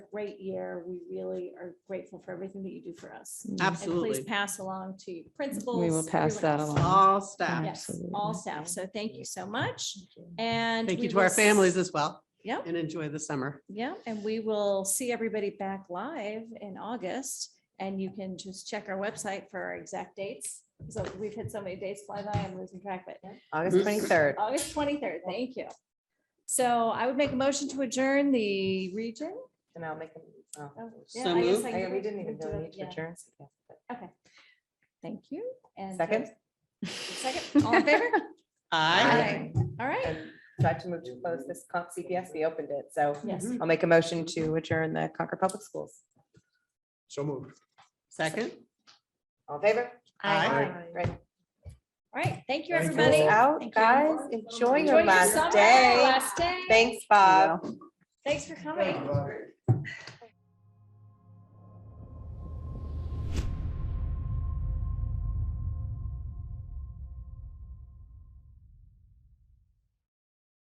great year. We really are grateful for everything that you do for us. And please Absolutely. pass along to your principals. We will pass everyone that else. along. All staff. Yes, all Absolutely. staff. So thank you so much and. Thank we you to our will s- families as well Yep, and enjoy the summer. yep. And we will see everybody back live in August. And you can just check our website for our exact dates. So we've had so many dates fly by, I'm losing track, but August twenty-third. August twenty-third, thank you. So I would make a motion to adjourn the region. And I'll make them. oh. Oh, yeah, So I guess moved. I I- can- We didn't even can do really it, need to yeah. adjourn. Okay. Thank you. And Second? there's- Second, all in favor? Aye. Aye. All right. And Tried to move to close this con- CPS, we opened it, so Yes. I'll make a motion to adjourn the Concord Public Schools. So moved. Second. All in favor? Aye. Great. All right. Thank you, Thank you. everybody. Guys Out, Thank you. guys, enjoy Enjoy your your last summer, day. Last day. Thanks, Bob. Thanks for coming.